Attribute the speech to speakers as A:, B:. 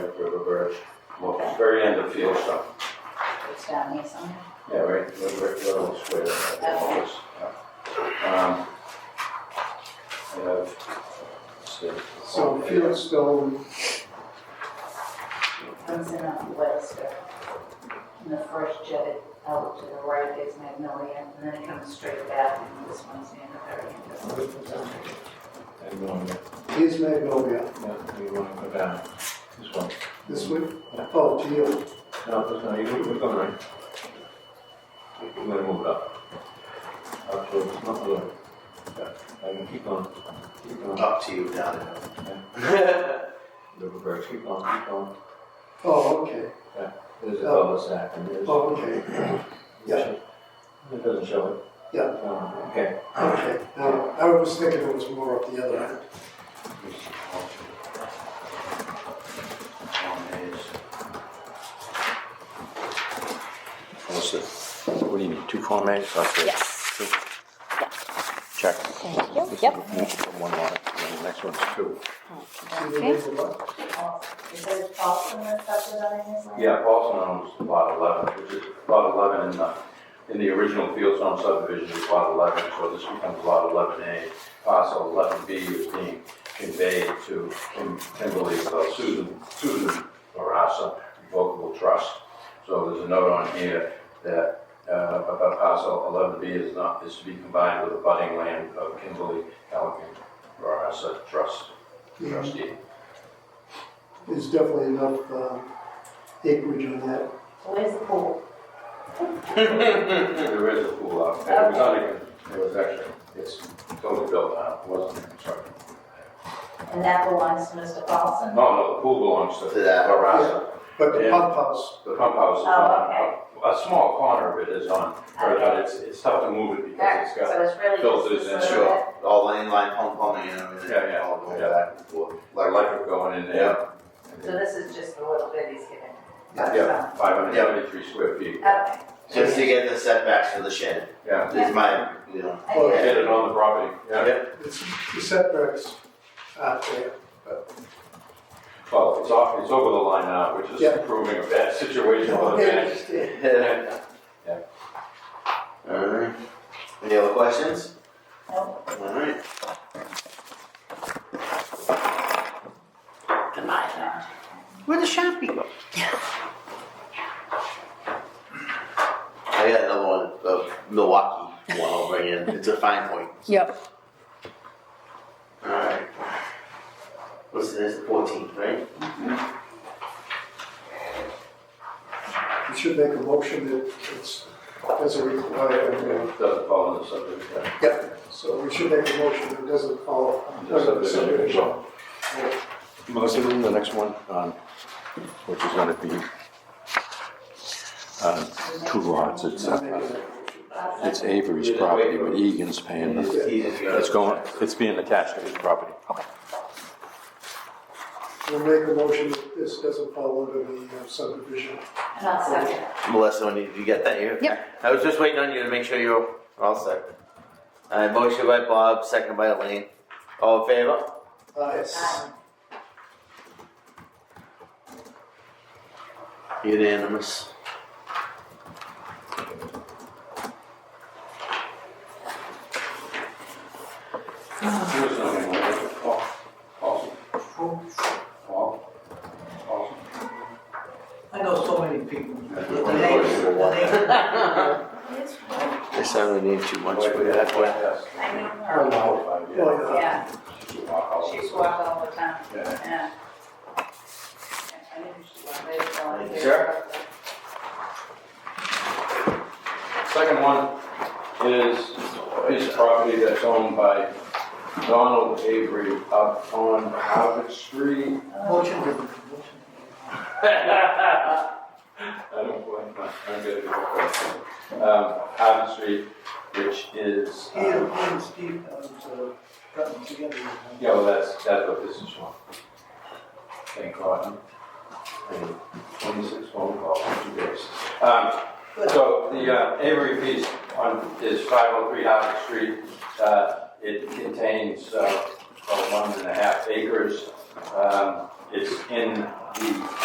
A: Birch, well, very end of field stuff.
B: It's down here somewhere.
A: Yeah, right, right, right, little square, right, the
B: Okay.
A: office, yeah. Um, I have, let's see.
C: So Fieldstone,
B: Comes in on Webster. And the first jetted out to the right is Magnolia, and then it comes straight back, and this one's in the very end.
D: And you want to,
C: here's Magnolia,
D: you want to go down this one?
C: this one, oh, to you.
D: No, that's not, you- you're going right. We're going to move it up. Up to, it's not low. Yeah, I can keep on, keep on.
E: Up to you, down
D: Little bird, keep on, keep on.
C: Oh, okay,
D: There's a
C: Oh.
D: cul-de-sac and there's.
C: oh, okay, yeah.
D: It doesn't show it.
C: Yeah.
D: No, Okay.
C: okay. Now, I was thinking it was more up the other end.
E: What's it? What do you need, two Form As?
F: Yes.
E: Check.
F: Thank you.
E: This
F: Yep.
E: is the One lot, and the next one's two.
C: See the
F: Okay.
C: label up?
B: Is there a Paulson that's up there on this one?
A: Yeah, Paulson owns lot eleven, which is lot eleven in the, in the original Fieldstone subdivision is lot eleven, so this becomes lot eleven A. Parcel eleven B is being conveyed to Kim- Kimberly uh, Susan, Susan Marassa Revocable Trust. So there's a note on here that, uh, about parcel eleven B is not, is to be combined with the budding land of Kimberly Alvin Marassa Trust,
C: Mm-hmm.
A: trustee.
C: There's definitely enough, um, acreage on that.
B: Where's the pool?
A: There is a pool out there, it was not even, it was actually, it's totally built out, It wasn't, I'm sorry.
B: And that belongs to Mr.
E: Oh,
B: Paulson?
A: No, no, the pool belongs to
E: To that.
A: Barassa.
C: But the
A: Yeah.
C: pump house,
A: The pump house is
B: Oh,
A: on,
B: okay.
A: a a small corner of it is on, right now, it's, it's tough to move it because it's got,
B: So it's really
A: filters
B: just
A: and
B: this little
E: Sure, all the inline pump plumbing and everything.
A: Yeah, yeah,
E: All going
A: yeah.
E: back and forth.
A: like, electric going in there.
B: bit. So this is just the little bit he's given.
A: Yeah, five hundred seventy-three square feet,
B: Okay.
E: Just to get the setbacks for the shed,
A: yeah.
E: is my, you know.
B: I get it.
A: Get it on the property, yeah,
C: it's, the setbacks out there.
A: well, it's off, it's over the line now, which is
C: Yeah.
A: proving a bad situation for the
C: Okay, I
A: finish.
C: understand.
A: Yeah.
E: Alright, any other questions?
B: Nope.
E: Alright.
F: Where the shop people?
E: I got another one, the Milwaukee one I'll bring in, it's a fine point.
F: Yep.
E: Alright. What's this, fourteen, right?
C: You should make a motion that it's, doesn't require,
A: It Doesn't fall in the subdivision,
C: yep, uh, so we should make a motion that doesn't follow.
A: the subdivision.
E: Melissa, the next one, um, which is gonna be, um, two lots, it's,
C: Not
E: uh,
C: making that.
E: it's Avery's property, but Egan's paying the It's going, it's being attached to his property.
C: We'll make a motion that this doesn't fall under the uh, subdivision.
B: And I'll second it.
E: Melissa, when you, you get that here?
F: Yep.
E: I was just waiting on you to make sure you're all set. Uh, motion by Bob, second by Elaine. All in favor?
C: Uh, Aye.
B: Um,
E: Unanimous.
A: There's nothing like it. Paul- Paulson. Paul- Paulson.
G: I know so many people. The neighbors, the
A: Yes.
G: neighbors.
B: it's cool.
E: They certainly need too much for that one.
B: I know her.
A: Her mouth, yeah.
C: Well, yeah.
B: Yeah,
A: She's a walk out.
B: she's walking all the time.
A: Yeah.
B: Yeah. I knew she wanted to go.
E: Sure.
A: Second one is a piece of property that's owned by Donald Avery up on Harvard Street.
B: Uh,
G: Motion given, motion.
A: I don't blame my, I'm good at that. Um, Harvard Street, which is, uh,
G: Here, here, Steve, uh, was, uh, gotten together. with him.
A: yeah, well, that's, that's what this is for. Thank God. And Twenty-six phone calls in two days. Um, So the uh, Avery piece on, is 503 Howard Street. Uh, It contains uh, about one and a half acres. Um, It's in the